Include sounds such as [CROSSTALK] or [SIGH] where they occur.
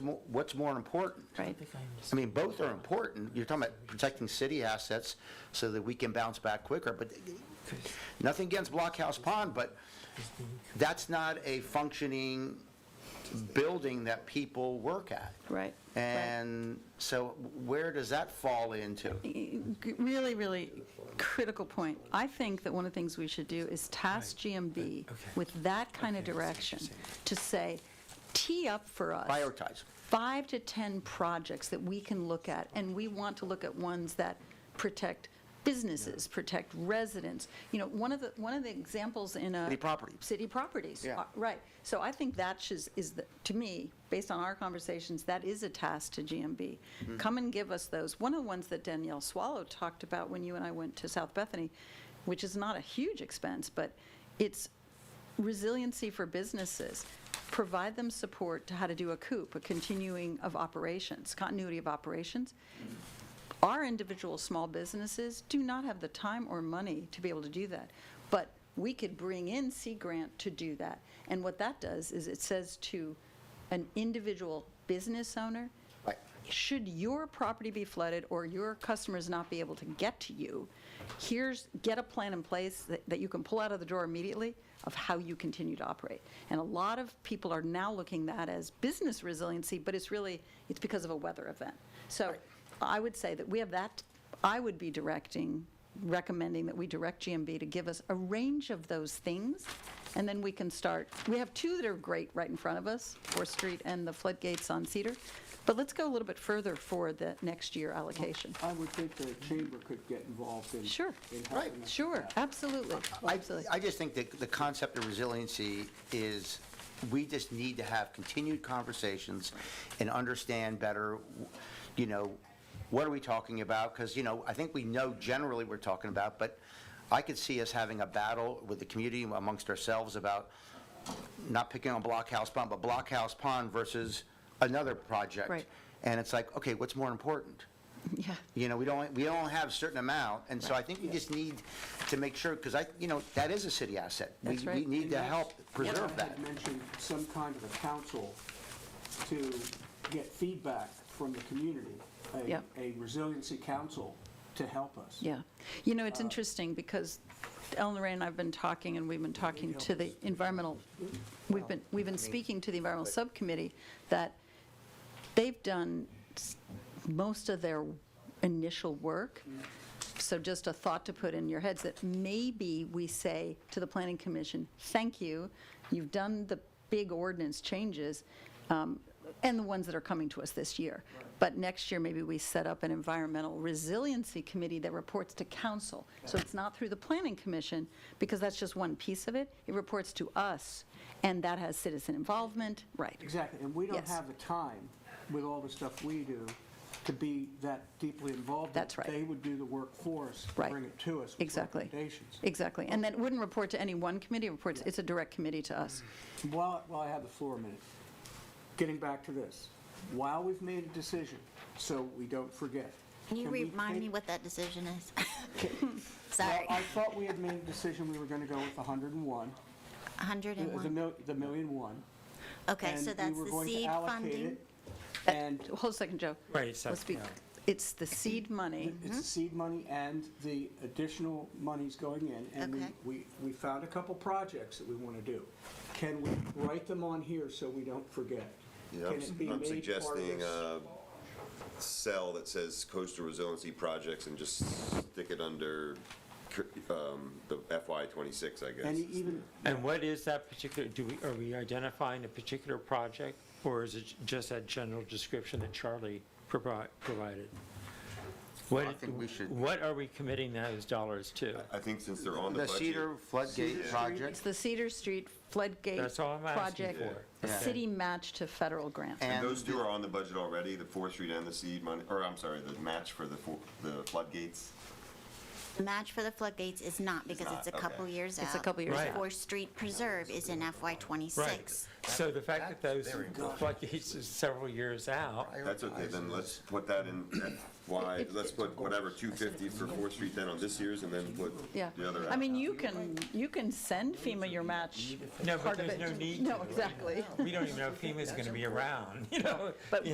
mo- what's more important? right? I mean, both are important. You're talking about protecting city assets so that we can bounce back quicker, but nothing against Blockhouse Pond, but that's not a functioning building that people work at. Right. And so where does that fall into? Really, really critical point. I think that one of the things we should do is task GMB Uh, with that kind of direction to say, tee up for us. Prioritize. five to 10 projects that we can look at, and we want to look at ones that protect businesses, protect residents. You know, one of the, one of the examples in a. City property. City properties. Yeah. Uh, Right. So I think that is, is, the- to me, based on our conversations, that is a task to GMB. Come and give us those. One of the ones that Danielle Swallow talked about when you and I went to South Bethany, which is not a huge expense, but it's resiliency for businesses, provide them support to how to do a COOP, a continuing of operations, continuity of operations. Our individual small businesses do not have the time or money to be able to do that, but we could bring in Sea Grant to do that. And what that does is it says to an individual business owner, Right. should your property be flooded or your customers not be able to get to you, here's, get a plan in place that, that you can pull out of the drawer immediately of how you continue to operate. And a lot of people are now looking that as business resiliency, but it's really, it's because of a weather event. So I would say that we have that, I would be directing, recommending that we direct GMB to give us a range of those things, and then we can start. We have two that are great right in front of us, Fourth Street and the floodgates on Cedar, but let's go a little bit further for the next year allocation. I would think the chamber could get involved in. Sure. in helping Right. us with Sure, that. absolutely, I, absolutely. I just think that the concept of resiliency is, we just need to have continued conversations and understand better, you know, what are we talking about? Because, you know, I think we know generally we're talking about, but I could see us having a battle with the community amongst ourselves about not picking on Blockhouse Pond, but Blockhouse Pond versus another project. Right. And it's like, okay, what's more important? Yeah, You know, we don't, we don't have a certain amount, and so I think we just need to make sure, because I, you know, that is a city asset. We- That's right. We need to help preserve I that. had mentioned some kind of a council to get feedback from the community. a- Yep. A resiliency council to help us. yeah. You know, it's interesting because Ellen Ray and I have been talking, and we've been talking to the environmental, we've been, we've been speaking to the environmental subcommittee that they've done s- most of their initial work. So just a thought to put in your heads that maybe we say to the planning commission, thank you, you've done the big ordinance changes um, and the ones that are coming to us this year. But next year, maybe we set up an environmental resiliency committee that reports to council. So it's not through the planning commission because that's just one piece of it. It reports to us and that has citizen involvement, right? Exactly, and we don't Yes. have the time, with all the stuff we do, to be that deeply involved. That's right. They would do the work for us, Right. bring it to us with Exactly. recommendations. Exactly. And then it wouldn't report to any one committee, it reports, it's a direct committee to us. While, while I have the floor a minute, getting back to this, while we've made a decision, so we don't forget. Can you we remind me take- what that decision [LAUGHS] is? Well, [LAUGHS] Sorry, I thought we had made a decision we were going to go with 101, the- uh, the 101. mil- the million one. Okay, so and that's we were the going to seed allocate funding. it, And Hold a second, Joe. Right, so, Let's be- yeah. It's the seed money. It's Mm-hmm. the seed money and the additional monies going in, and we- Okay. we, we found a couple projects that we want to do. Can we write them on here so we don't forget? Yeah, Can I'm, it be I'm made part of suggesting uh, this? a cell that says coastal resiliency projects and just stick it under cur- um, the FY twenty-six, I guess. And even, And what is that particular, do we, are we identifying a particular project? Or is it just that general description that Charlie provi- provided? What, I think we should- Uh, what are we committing those dollars to? I think since they're on the The budget. Cedar Floodgate It's Project the Cedar Street floodgate That's all I'm asking project. for. Yeah. City match to federal grant. And and those two are on the budget already, the Fourth Street and the seed money, or I'm sorry, the match for the, fo- the floodgates. The match for the floodgates is not because it's a not, couple okay. years out. It's a couple years Right. out. Fourth Street Preserve is in FY Right. '26. So the fact that That's those very important. floodgates is several years out, That's okay, then let's put that in, why, let's put whatever, 250 for Fourth Street then on this year's and then put Yeah. the other. I out. mean, you can, you can send FEMA your match no, but part of it. there's no need No, to. exactly. We don't even know if FEMA's going to be around, [LAUGHS] you know? But